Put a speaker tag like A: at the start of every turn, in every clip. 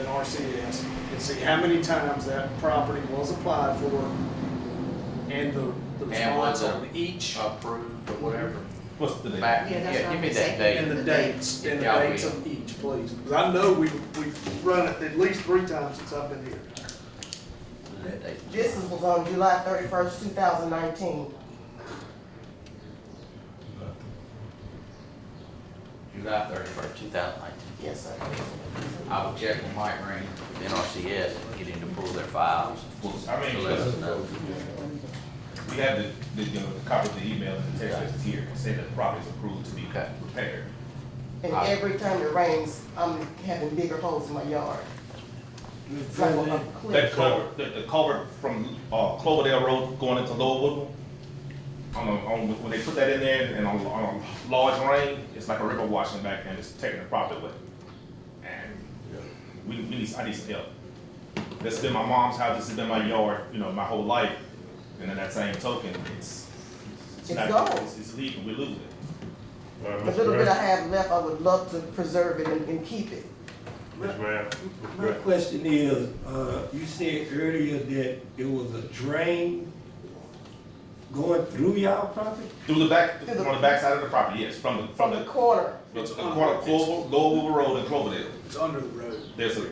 A: RCS and see how many times that property was applied for and the, the
B: And
A: response
B: was a-
A: on each
B: approved or whatever.
C: What's the date?
B: Back,
D: Yeah, that's
B: yeah,
D: what
B: give me
D: I'm
B: that
D: saying.
A: and
B: date.
A: the dates, and the
B: Yeah,
A: dates
B: we-
A: of each, please. 'Cause I know we, we've run it at least three times since I've been here.
B: That date.
D: This is- was on July thirty-first, two thousand nineteen.
B: July thirty-first, two thousand nineteen.
D: Yes, sir.
B: I will check with Mike Green, the NRCS, and get him to pull their files.
C: I mean,
B: To let us know.
C: We have the, the, you know, the copy of the email and the text that's here, saying that the property is approved to be
B: Okay.
C: repaired.
D: And
B: Alright.
D: every time it rains, I'm having bigger holes in my yard. It's like on a cliff.
C: That culvert, the, the culvert from, uh, Cloverdale Road going into Lower Woodland, on, a- on, when they put that in there and on, on a large rain, it's like a river washing back and it's taking the property away. And we, we need, I need some help. This has been my mom's house, this has been my yard, you know, my whole life, and in that same token, it's, it's
D: It's
C: not,
D: gone.
C: it's, it's leaving, we losing it.
E: Uh,
D: The
E: Mr.
D: little bit I
E: Mayor,
D: have left, I would love to preserve it and, and keep it.
E: Mr. Mayor,
F: My question is, uh, you said earlier that it was a drain going through y'all property?
C: Through the back,
D: Through the-
C: on the back side of the property, yes, from the, from
D: From the
C: the,
D: corner,
C: the corner of Clover, Lower Woodland Road and Cloverdale.
A: It's under the road.
C: There's a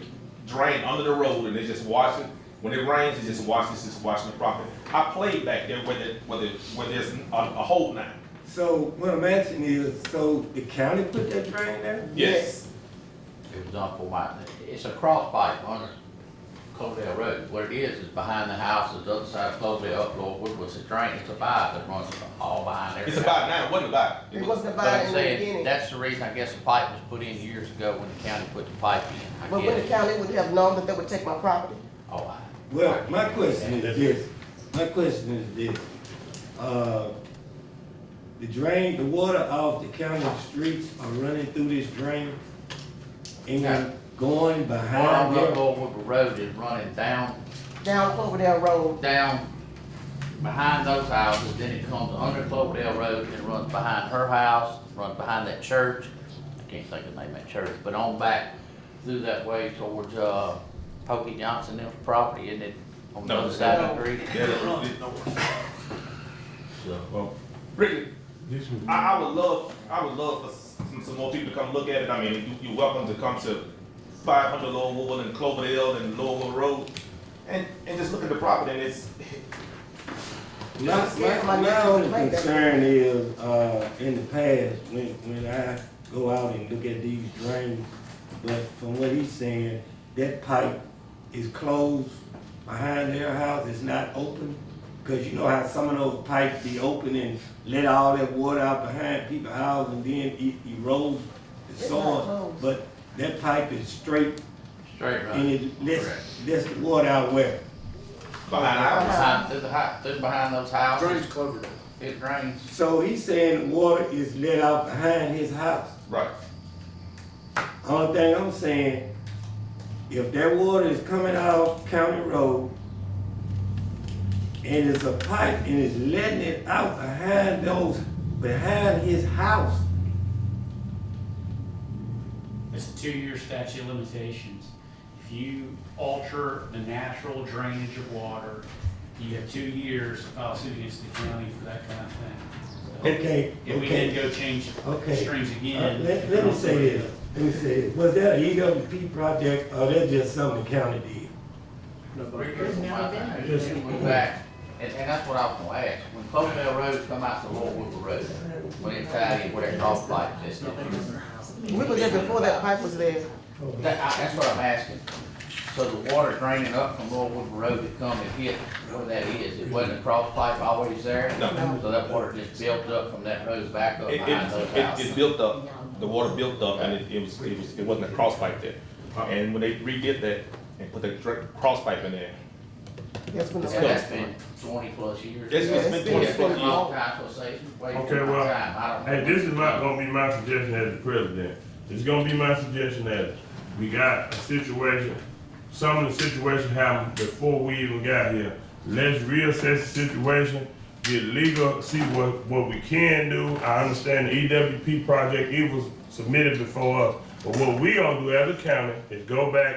C: drain under the road and they just wash it. When it rains, it just washes, just washing the property. I played back there where the, where the, where there's a, a hole now.
F: So what I'm asking is, so the county put that drain there?
C: Yes.
D: yes.
B: It was on for my, it's a cross pipe on Cloverdale Road. What it is, is behind the houses, the other side of Cloverdale, up Lord Woodward's a drain, it's a pipe that runs all behind everything.
C: It's about now, it wasn't about.
D: It wasn't
B: But I'm
D: about in the beginning.
B: saying, that's the reason, I guess, the pipe was put in years ago when the county put the pipe in, I
D: But when the
B: guess.
D: county would have known that they would take my property.
B: Oh, I.
F: Well, my question is this, my question is this, uh, the drain, the water off the county streets are running through this drain and going
B: One
F: behind there?
B: up Lord Woodward Road is running down
D: Down Cloverdale Road,
B: down behind those houses, then it comes under Cloverdale Road and runs behind her house, runs behind that church. I can't think of the name of that church, but on back through that way towards, uh, Pokey Johnson, them property, isn't it? On the
C: No.
B: other side of the creek. So,
C: Well, Ricky, I, I would love, I would love for some, some more people to come look at it. I mean, you, you're welcome to come to five hundred Lower Woodland and Cloverdale and Lower Woodland Road and, and just look at the property and it's,
F: My, my, my only concern is, uh, in the past, when, when I go out and look at these drains, but from what he's saying, that pipe is closed behind their house, it's not open. Cause you know how some of those pipes be open and let all that water out behind people's houses and then it erodes the
D: It's not
F: soil.
D: closed.
F: But that pipe is straight
B: straight
F: and
B: run.
F: it lets,
B: Correct.
F: lets the water out where?
C: behind our house.
B: Behind, through the hou- through behind those
A: Drains
B: houses,
A: Cloverdale.
B: it drains.
F: So he's saying water is let out behind his house.
C: Right.
F: Only thing I'm saying, if that water is coming out County Road and it's a pipe and it's letting it out behind those, behind his house,
G: It's a two-year statute of limitations. If you alter the natural drainage of water, you have two years to file suit against the county for that kind of thing. So
F: okay,
G: If we then
F: okay.
G: go change
F: Okay.
G: strings
F: Uh,
G: again.
F: Let, let me say this, let me say this, was that an EWP project or that just something the county did?
A: Nobody.
B: Went back, and, and that's what I was gonna ask, when Cloverdale Road come out to Lord Woodward Road, when it's out here where that cross pipe is.
D: we were there before that pipe was there.
B: That, I, that's what I'm asking. So the water draining up from Lord Woodward Road to come and hit where that is, it wasn't a cross pipe always there?
C: No.
B: So that water just built up from that road back up
C: It,
B: behind those
C: it, it, it
B: houses?
C: built up, the water built up and it, it was, it was, it wasn't a cross pipe there. And when they redid that and put the dr- cross pipe in there,
D: That's when the.
B: And that's been twenty plus years.
C: It's- it's
B: ago.
C: been 20 plus
B: a long time, so say, wait,
E: Okay,
B: long
E: well,
B: time, I don't.
E: hey, this is not gonna be my suggestion as the president. It's gonna be my suggestion as, we got a situation, some of the situation happened before we even got here. Let's reassess the situation, get legal, see what, what we can do. I understand the E EWP project, it was submitted before us. But what we gonna do as a county is go back